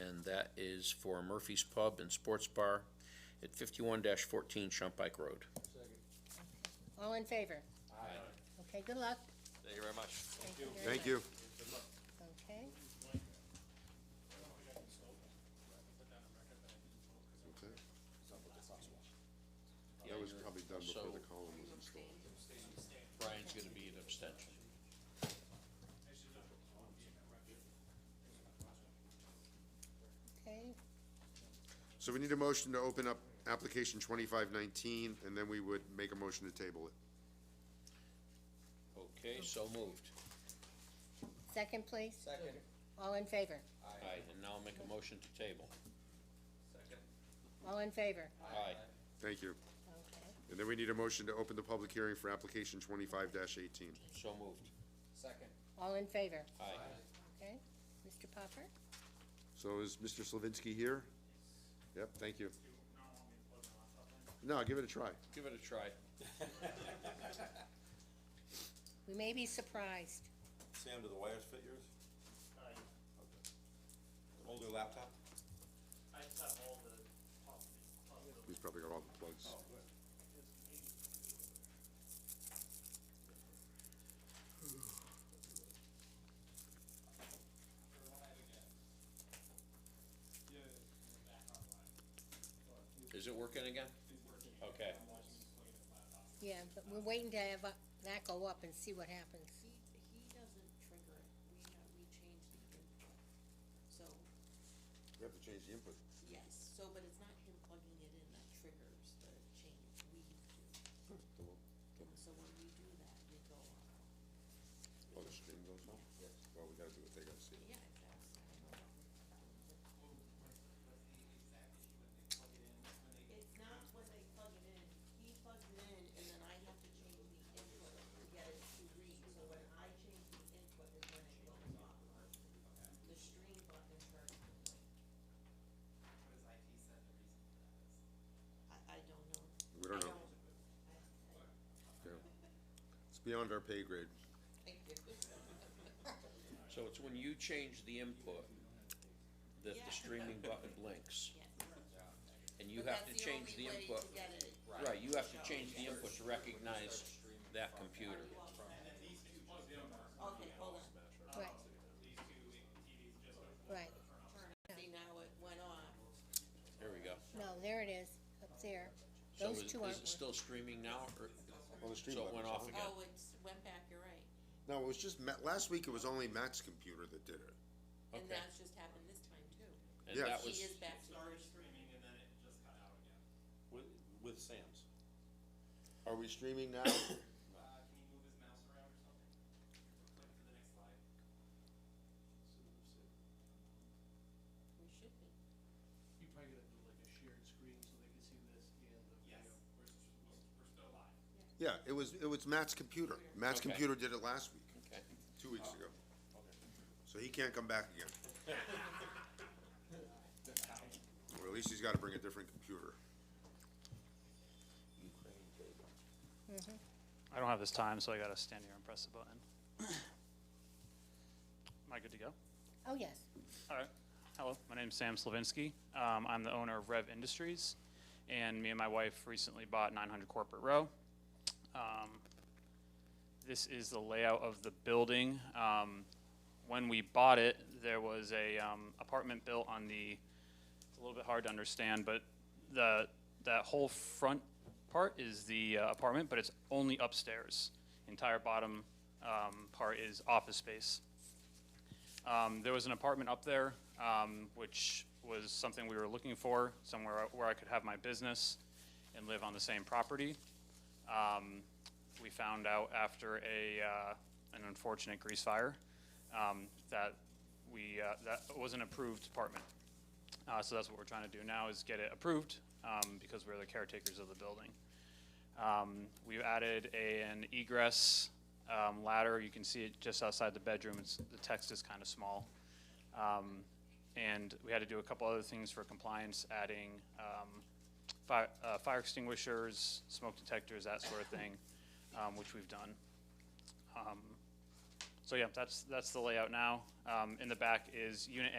and that is for Murphy's Pub and Sports Bar at fifty-one fourteen Shumpike Road. All in favor? Okay, good luck. Thank you very much. Thank you very Thank you. much. Okay, Okay. That was probably done before the column was installed. Brian's gonna be an abstention. okay. So we need a motion to open up application twenty-five nineteen, and then we would make a motion to table it. Okay, so moved. Second, please? Second. All in favor? Aye, and now I'll make a motion to table. All in favor? Aye. Thank you. Okay, And then we need a motion to open the public hearing for application twenty-five eighteen. So moved. Second. all in favor? Aye. Okay, Mr. Popper? So is Mr. Slavinsky here? Yep, thank you. No, give it a try. Give it a try. We may be surprised. Sam, do the wires fit yours? Aye. Older laptop? I just have all the possible, possible He's probably got all the plugs. Is it working again? Okay. Yeah, but we're waiting to have uh, that go up and see what happens. He, he doesn't trigger it, we, ha- we change the input. So, We have to change the input. yes, so, but it's not him plugging it in that triggers the change, we do. So when we do that, we go on, Oh, the stream goes off? Yes. Well, we gotta do what they gotta see. yeah, exactly. It's not what they plug it in, he plugs it in, and then I have to change the input to get it to read, so when I change the input is when it goes off. The stream button turns the link. I, I don't know. We don't know. Yeah. It's beyond our pay grade. So it's when you change the input that Yeah. the streaming button blinks, Yes. and you have to change the input. But that's the only way to get it. Right, you have to change the input to recognize that computer. Okay, hold on, Right, these two TVs just don't right. turn, it. see now it went on, There we go. No, there it is, up there. So Those is, two aren't. is it still streaming now, or, Well, the stream so it button's went on. off again? oh, it's, went back, you're right, No, it was just Matt, last week it was only Matt's computer that did it. and Okay. that's just happened this time too. And Yes. that He was, is back to start streaming and then it just cut out again. With, with Sam's. Are we streaming now? Uh, can you move his mouse around or something? Click to the next slide. We should be. You probably gotta do like a shared screen so they can see this and the Yes, video. we're, we're, we're still live. Yeah, it was, it was Matt's computer. Matt's Okay. computer did it last week, okay, two weeks ago. So he can't come back again. Or at least he's gotta bring a different computer. I don't have this time, so I gotta stand here and press the button. Am I good to go? Oh, yes. All right. Hello, my name's Sam Slavinsky. Um, I'm the owner of Rev Industries, and me and my wife recently bought 900 Corporate Row. Um, this is the layout of the building. Um, when we bought it, there was a um, apartment built on the. It's a little bit hard to understand, but the that whole front part is the uh, apartment, but it's only upstairs. Entire bottom um, part is office space. Um, there was an apartment up there, um, which was something we were looking for, somewhere where I could have my business and live on the same property. Um, we found out after a, uh, an unfortunate grease fire, um, that we, uh, that was an approved apartment. Uh, so that's what we're trying to do now is get it approved, um, because we're the caretakers of the building. Um, we've added a, an egress, um, ladder. You can see it just outside the bedroom. It's, the text is kind of small. Um, and we had to do a couple other things for compliance, adding, um, fire, uh, fire extinguishers, smoke detectors, that sort of thing, um, which we've done. Um, so yeah, that's, that's the layout now. Um, in the back is unit A.